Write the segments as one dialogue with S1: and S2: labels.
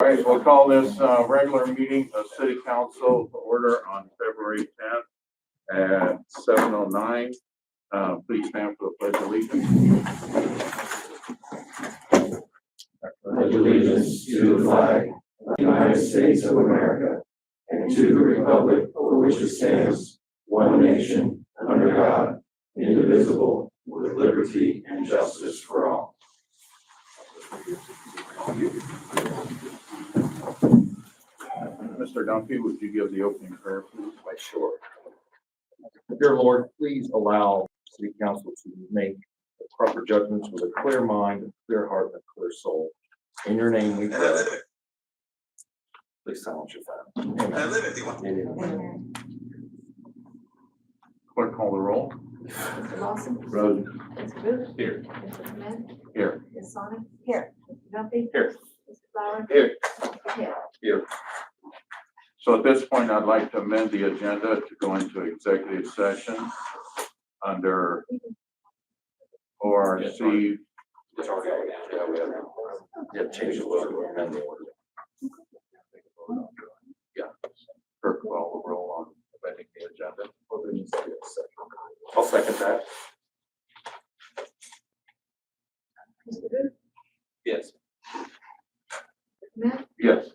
S1: All right, we'll call this, uh, regular meeting of city council to order on February tenth at seven oh nine. Uh, please stand for the pledge of allegiance.
S2: pledge allegiance to the flag of the United States of America and to the republic for which it stands, one nation, under God, indivisible, with liberty and justice for all.
S1: Mr. Dunphy, would you give the opening prayer, please?
S3: Why, sure. Dear Lord, please allow city council to make the proper judgments with a clear mind, a clear heart, and a clear soul. In your name we pray. Please silence your phone. Amen.
S1: Clerk call the roll.
S4: Mr. Lawson,
S1: Rose.
S4: Mr. Booth.
S1: Here.
S4: Mr. Clement.
S1: Here.
S4: Ms. Sonic. Here. Mr. Duffy.
S3: Here.
S4: Mr. Flower.
S3: Here.
S4: Mr. Hill.
S1: So at this point, I'd like to amend the agenda to go into executive session under ORC
S3: It's already on. Yeah, we have it. Yeah, change the order, amend the order.
S1: Clerk call the roll on amending the agenda.
S3: I'll second that.
S4: Mr. Booth.
S3: Yes.
S4: Mr. Clement.
S1: Yes.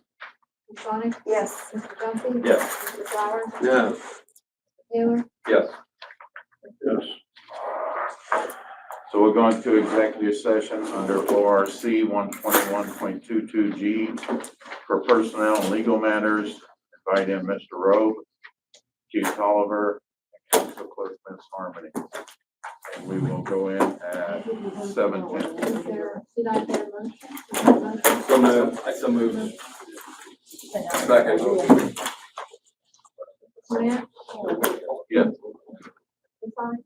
S4: Ms. Sonic. Yes. Mr. Duffy.
S3: Yes.
S4: Mr. Flower.
S3: No.
S4: Taylor.
S3: Yes.
S1: Yes. So we're going to executive session under ORC one twenty-one point two-two G for personnel and legal matters. Invite in Mr. Rowe, Chief Tolliver, and Council Clerk Ms. Harmony. And we will go in at seven ten.
S4: Is there- Did I hear a motion? Is there a motion?
S3: So move. I so move. Second.
S4: Clement.
S1: Yes.
S4: Ms. Sonic.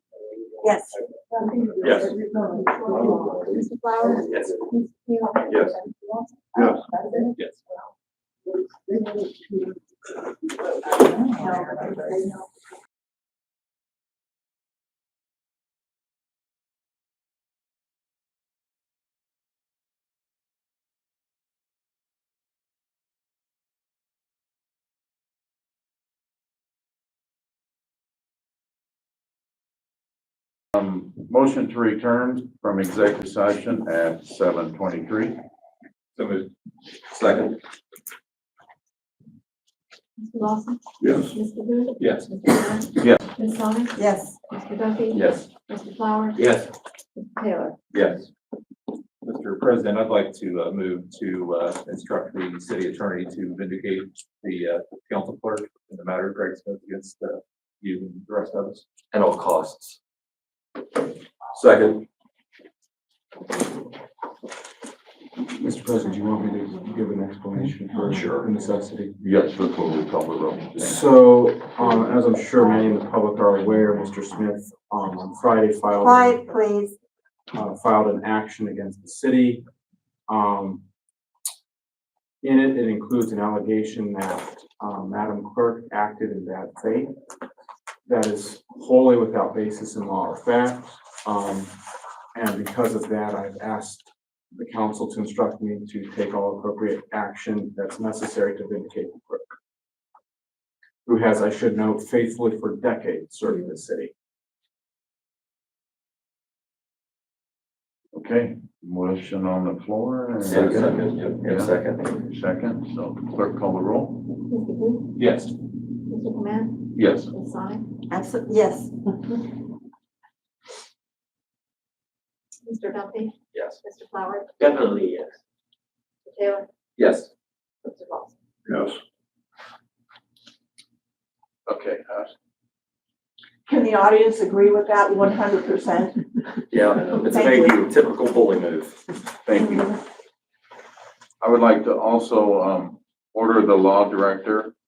S5: Yes.
S4: Duffy.
S3: Yes.
S4: Mr. Flower.
S3: Yes.
S4: Mr. Hill.
S3: Yes.
S4: Mr. Lawson.
S1: Yes.
S3: Yes.
S1: Um, motion to return from executive session at seven twenty-three.
S3: So move. Second.
S4: Mr. Lawson.
S1: Yes.
S4: Mr. Booth.
S3: Yes.
S4: Mr. Clement.
S1: Yes.
S4: Ms. Sonic.
S5: Yes.
S4: Mr. Duffy.
S3: Yes.
S4: Mr. Flower.
S3: Yes.
S4: Mr. Taylor.
S3: Yes. Mr. President, I'd like to uh, move to uh, instruct the city attorney to vindicate the uh, council clerk in the matter of Greg Smith against uh, you and the rest of us. At all costs. Second.
S6: Mr. President, do you want me to give an explanation for
S3: Sure.
S6: necessity?
S1: Yes, that's what we call the roll.
S6: So, um, as I'm sure many in the public are aware, Mr. Smith, um, on Friday filed.
S5: Quiet, please.
S6: uh, filed an action against the city. Um, in it, it includes an allegation that, um, Madam Clerk acted in bad faith. That is wholly without basis in law or fact. Um, and because of that, I've asked the council to instruct me to take all appropriate action that's necessary to vindicate the clerk. Who has, I should note, faithfully for decades serving the city.
S1: Okay, motion on the floor. and- Yeah.
S3: second.
S1: Second, so clerk call the roll.
S4: Mr. Booth.
S3: Yes.
S4: Mr. Clement.
S1: Yes.
S4: Ms. Sonic.
S5: Absolutely, yes.
S4: Mr. Duffy.
S3: Yes.
S4: Mr. Flower.
S3: Definitely yes.
S4: Mr. Taylor.
S3: Yes.
S4: Mr. Lawson.
S1: Yes. Okay, uh,
S7: Can the audience agree with that one hundred percent?
S3: Yeah,
S7: it's a Thank you.
S3: typical bully move.
S1: thank you. I would like to also, um, order the law director